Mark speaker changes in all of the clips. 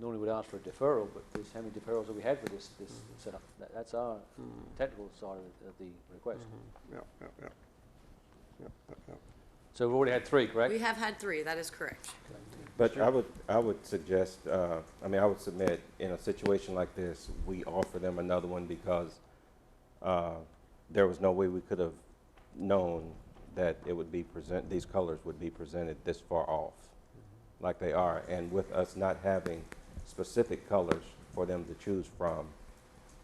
Speaker 1: normally would ask for a deferral, but there's how many deferrals have we had for this, this
Speaker 2: Mhm.
Speaker 1: setup? That, that's our technical side of, of the request.
Speaker 2: Yeah, yeah, yeah. Yeah, yeah, yeah.
Speaker 1: So we've already had three,
Speaker 3: We
Speaker 1: correct?
Speaker 3: have had three, that is correct.
Speaker 4: But I would, I would suggest, uh, I mean, I would submit, in a situation like this, we offer them another one because, uh, there was no way we could have known that it would be present, these colors would be presented this far off, like they are, and with us not having specific colors for them to choose from,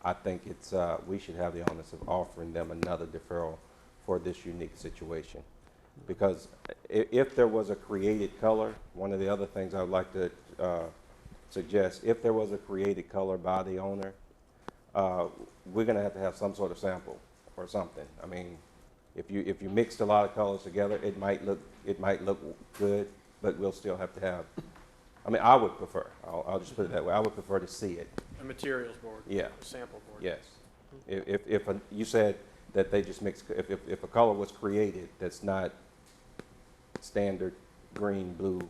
Speaker 4: I think it's, uh, we should have the onus of offering them another deferral for this unique situation. Because i- if there was a created color, one of the other things I would like to, uh, suggest, if there was a created color by the owner, uh, we're gonna have to have some sort of sample or something. I mean, if you, if you mixed a lot of colors together, it might look, it might look good, but we'll still have to have, I mean, I would prefer, I'll, I'll just put it that way, I would prefer to see it,
Speaker 5: A materials board,
Speaker 4: yeah.
Speaker 5: a sample board.
Speaker 4: Yes. If, if, if, a- you said that they just mix, if, if, if a color was created that's not standard green, blue,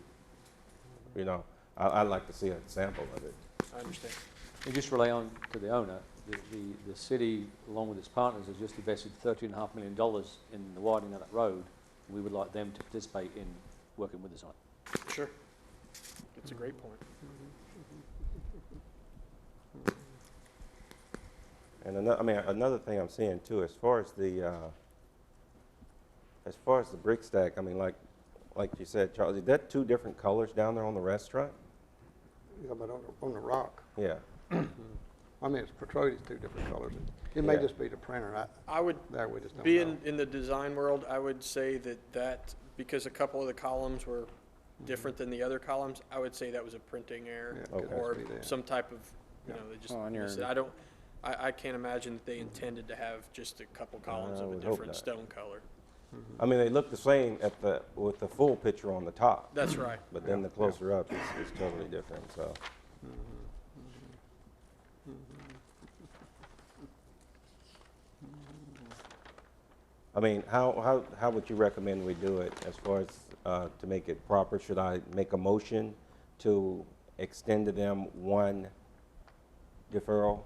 Speaker 4: you know, I, I'd like to see a sample of it.
Speaker 5: I understand.
Speaker 1: And just rely on to the owner, the, the, the city, along with its partners, has just invested thirteen and a half million dollars in the widening of that road. We would like them to participate in working with us on it.
Speaker 5: Sure. It's a great point.
Speaker 4: And another, I mean, another thing I'm seeing too, as far as the, uh, as far as the brick stack, I mean, like, like you said, Charles, is that two different colors down there on the restaurant?
Speaker 2: Yeah, but on, the- on the rock,
Speaker 4: Yeah,
Speaker 2: I mean, it's portrayed as two different colors. It may
Speaker 4: Yeah.
Speaker 2: just be the printer, I,
Speaker 5: I would
Speaker 2: there, we just don't know.
Speaker 5: be in, in the design world, I would say that that, because a couple of the columns were different than the other columns, I would say that was a printing
Speaker 2: Mm-hmm. Yeah,
Speaker 5: error
Speaker 2: it could
Speaker 5: or
Speaker 2: be there.
Speaker 5: some type of, you
Speaker 2: Yeah.
Speaker 5: know, they just,
Speaker 6: Oh, on your-
Speaker 5: missed it. I don't, I, I can't imagine that they intended to have just a couple columns
Speaker 4: I
Speaker 5: of a
Speaker 4: would hope
Speaker 5: different
Speaker 4: not.
Speaker 5: stone color.
Speaker 4: I mean, they look the same at the, with the full picture on the top.
Speaker 5: That's right.
Speaker 4: But then the closer up, it's, it's totally different, so. I mean, how, how, how would you recommend we do it as far as, uh, to make it proper? Should I make a motion to extend to them one deferral?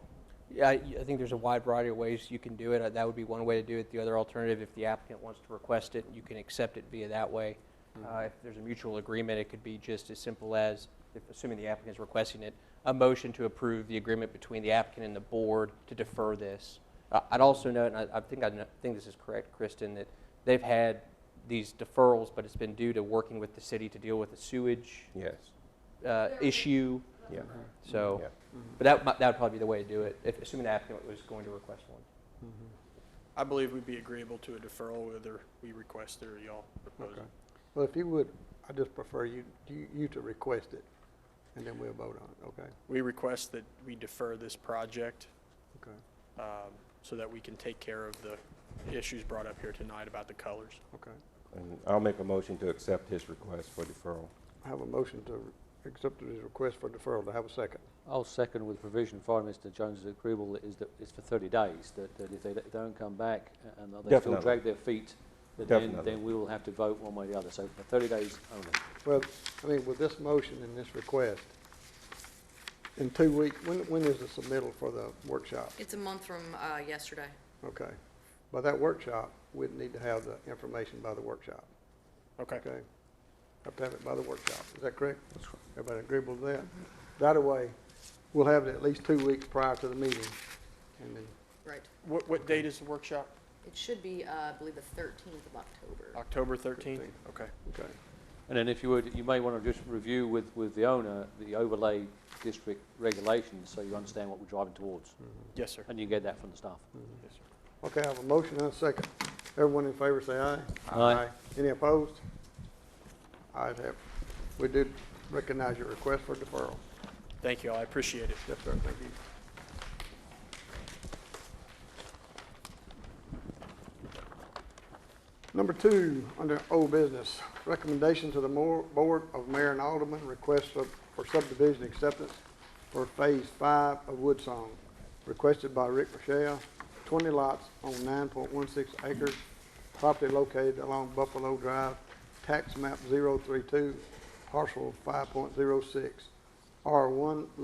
Speaker 7: Yeah, I I think there's a wide variety of ways you can do it. Uh, That would be one way to do it. The other alternative, if the applicant wants to request it, you can accept it via that way. Uh, If there's a mutual agreement, it could be just as simple as, if- assuming the applicant is requesting it, a motion to approve the agreement between the applicant and the board to defer this. Uh, I'd also note, and I I think I kno- think this is correct, Kristen, that they've had these deferrals, but it's been due to working with the city to deal with the sewage
Speaker 4: Yes,
Speaker 7: uh, issue,
Speaker 4: yeah,
Speaker 7: so.
Speaker 4: yeah.
Speaker 7: But that, mi- that would probably be the way to do it, if, assuming the applicant was going to request one.
Speaker 2: Mm-hmm.
Speaker 5: I believe we'd be agreeable to a deferral whether we request it or y'all propose
Speaker 2: Okay.
Speaker 5: it.
Speaker 2: Well, if you would, I just prefer you, you, you to request it, and then we'll vote on it, okay?
Speaker 5: We request that we defer this project
Speaker 2: Okay,
Speaker 5: um, so that we can take care of the issues brought up here tonight about the colors.
Speaker 2: okay.
Speaker 4: And I'll make a motion to accept his request for deferral.
Speaker 2: I have a motion to accept his request for deferral, to have a second?
Speaker 1: I'll second with provision for Mr. Jones's agreeable is that it's for thirty days, that, that if they don't- don't come back uh, and they still
Speaker 4: Definitely.
Speaker 1: drag their feet, that then,
Speaker 4: Definitely.
Speaker 1: then we will have to vote one way or the other. So for thirty days only.
Speaker 2: Well, I mean, with this motion and this request, in two weeks, when, when is the submittal for the workshop?
Speaker 3: It's a month from uh, yesterday.
Speaker 2: Okay. By that workshop, we'd need to have the information by the workshop,
Speaker 5: Okay.
Speaker 2: okay? Have to have it by the workshop, is that correct? Everybody agreeable to that? That way, we'll have it at least two weeks prior to the meeting, and then
Speaker 3: Right.
Speaker 5: What, what date is the workshop?
Speaker 3: It should be, uh, I believe, the 13th of October.
Speaker 5: October 13th?
Speaker 2: Fifteenth.
Speaker 5: Okay.
Speaker 2: Okay,
Speaker 1: And then if you would, you may want to just review with, with the owner the overlay district regulations so you understand what we're driving towards.
Speaker 5: Yes, sir.
Speaker 1: And you get that from the staff.
Speaker 5: Yes, sir.
Speaker 2: okay, I have a motion and a second. Everyone in favor say aye.
Speaker 1: Aye.
Speaker 2: Any opposed? Ayes have. it. We did recognize your request for deferral.
Speaker 5: Thank you all. I appreciate it.
Speaker 2: Yes, sir, thank you. Number two, under old business, recommendation to the Moor- Board of Mayor and Alderman, request of- for subdivision acceptance for Phase Five of Woodsong, requested by Rick Rochelle, 20 lots on 9.16 acres, property located along Buffalo Drive, tax map 032, parcel 5.06. R one